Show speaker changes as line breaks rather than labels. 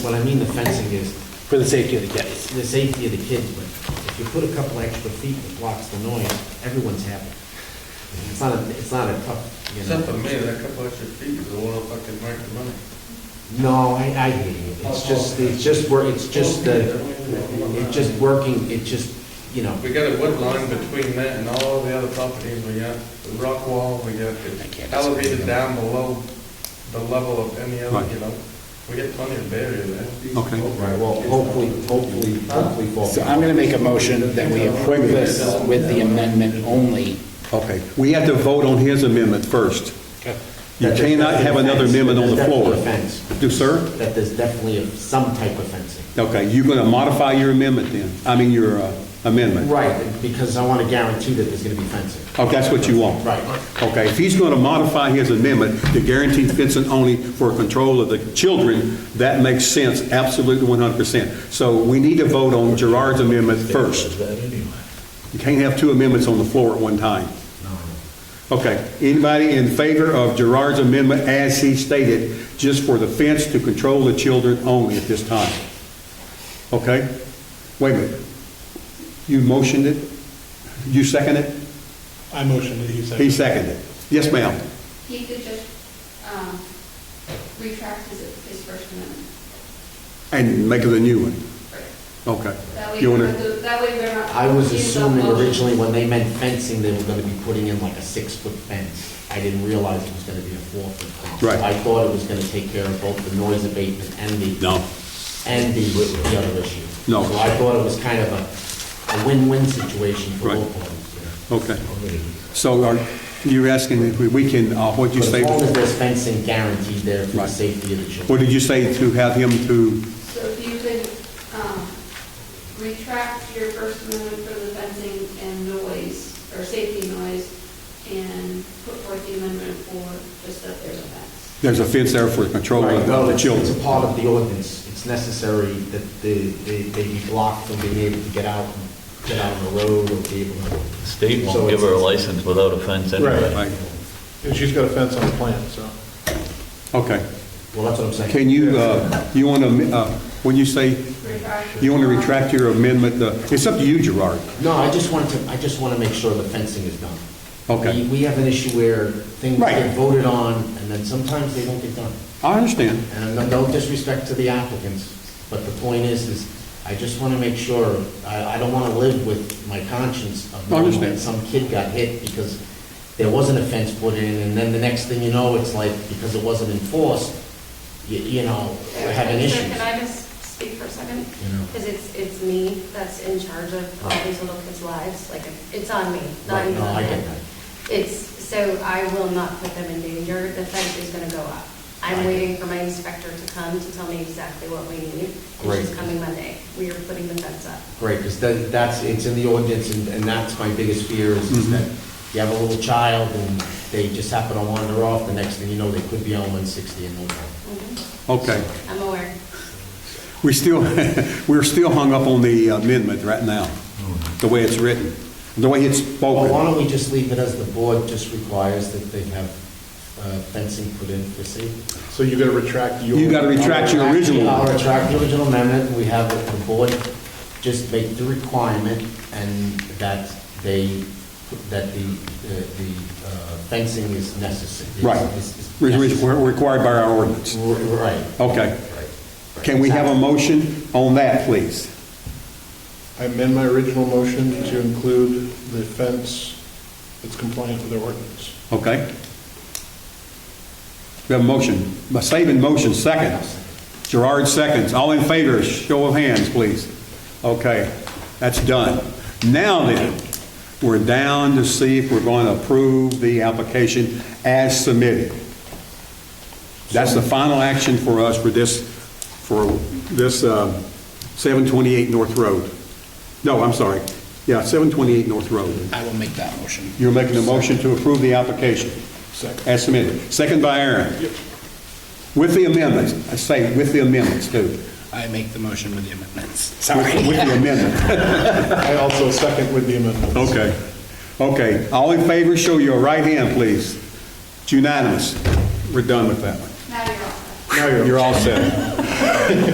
What I mean the fencing is,
for the safety of the kids.
it's the safety of the kids, but if you put a couple extra feet that blocks the noise, everyone's happy. It's not, a it's not a tough, you
Except for me,
know.
that couple extra feet is a little fucking worth the money.
No, I, I hear you. It's just, it's just, wor- it's just the, it's just working, it just, you know,
We got a wood line between that and all the other properties, we got the rock wall, we got the elevated down below the level of any other, you know? We got plenty of barrier there.
Okay.
right, well, hopefully, hopefully, hopefully fall.
So I'm going to make a motion that we approve this with the amendment only.
Okay, we have to vote on his amendment first.
Okay.
You
That there's
cannot have
definitely
another
fence.
amendment on the
There's
floor.
definitely a fence.
Do, sir?
That there's definitely a- some type of fencing.
Okay, you're going to modify your amendment then, I mean, your uh, amendment?
Right, because I want to guarantee that there's going to be fencing.
Oh, that's what you want?
Right.
Okay, if he's going to modify his amendment to guarantee fencing only for control of the children, that makes sense, absolutely 100%. So we need to vote on Gerard's amendment first. You can't have two amendments on the floor at one time. Okay, anybody in favor of Gerard's amendment as he stated, just for the fence to control the children only at this time? Okay? Wait a minute. You motioned it? You seconded it?
I motion that he second.
He seconded. it. Yes, ma'am.
He could just um, retract his, his First Amendment.
And make it a new one. Okay.
That way,
You
we're
wanna-
not- that way we're not.
I was
confused
assuming
about motions.
originally when they meant fencing, they were gonna be putting in like a six-foot fence. I didn't realize it was gonna be a four-foot fence.
Right.
I thought it was gonna take care of both the noise abatement and the.
No.
And the, the other issue.
No.
So I thought it was kind of a, a win-win situation for
Right.
both parties.
Okay. So are, you're asking if we- we can, uh, what'd you
But
say?
as long as there's fencing guaranteed there for the
Right.
safety of the children.
What did you say to have him to,
So if you could um, retract your First Amendment for the fencing and noise, or safety noise, and put forth the amendment for just that there's a fence.
there's a fence there for control
Right,
of
well,
the
it's- It's
children?
a part of the ordinance. It's necessary that they, they they be blocked from being able to get out, and get out on the road or be able to.
The State
So
won't give her a
it's-
license without a fence anyway.
Right.
And she's got a fence on the plan, so.
Okay.
Well, that's what I'm saying.
Can you, uh, you want to, when you say,
Retract.
you want to retract your amendment, uh, it's up to you, Gerard.
No, I just wanted to, I just want to make sure the fencing is done.
Okay.
We- We have an issue where things
Right.
get voted on, and then sometimes they don't get done.
I understand.
And no- no disrespect to the applicants, but the point is, is I just want to make sure, I, I don't want to live with my conscience of knowing that
Understand.
some kid got hit because there wasn't a fence put in, and then the next thing you know, it's like, because it wasn't enforced, you, you know, we're having
Sir,
issues.
Can I just speak for a second?
You know.
Because it's, it's me that's in charge of all these little kids' lives, like, it's on me, not
Right,
even
no,
on
I get
him. It's, so I will not put them in danger, the fence is gonna go up.
I
I'm
get
waiting for my inspector to come to tell me exactly what we need, and
Great.
she's coming Monday. We are putting the fence up.
Great, because that's, it's in the ordinance, and, and that's my biggest fear, is is
Mhm.
that you have a little child, and they just happen to wander off, the next thing you know, they could be on 160 and no time.
Okay.
I'm aware.
We still, we're still hung up on the amendment right now, the way it's written, the way it's
Well, why
spoken.
don't we just leave it as the board just requires that they have uh, fencing put in for safety?
So you gotta retract your.
You gotta retract your original.
I'll retract the original amendment, we have it, the board just make the requirement, and that they, that the, uh, the uh, fencing is necessary.
Right.
Is- is-
We're- we're Required by our ordinance.
Right.
Okay. Can we have a motion on that, please?
I amend my original motion to include the fence that's compliant with the ordinance.
Okay? We have a motion, a saving motion, second. Gerard seconds. All in favor, show of hands, please. Okay, that's done. Now then, we're down to see if we're going to approve the application as submitted. That's the final action for us for this, for this um, 728 North Road. No, I'm sorry. Yeah, 728 North Road.
I will make that motion.
You're making a motion to approve the application.
Second.
As submitted. Second by Aaron. With the amendments, I say with the amendments too.
I make the motion with the amendments. Sorry.
With with the amendment.
I also second with the amendment.
Okay. Okay. All in favor, show your right hand, please. It's unanimous. We're done with that one.
Now you're all set.
You're all set.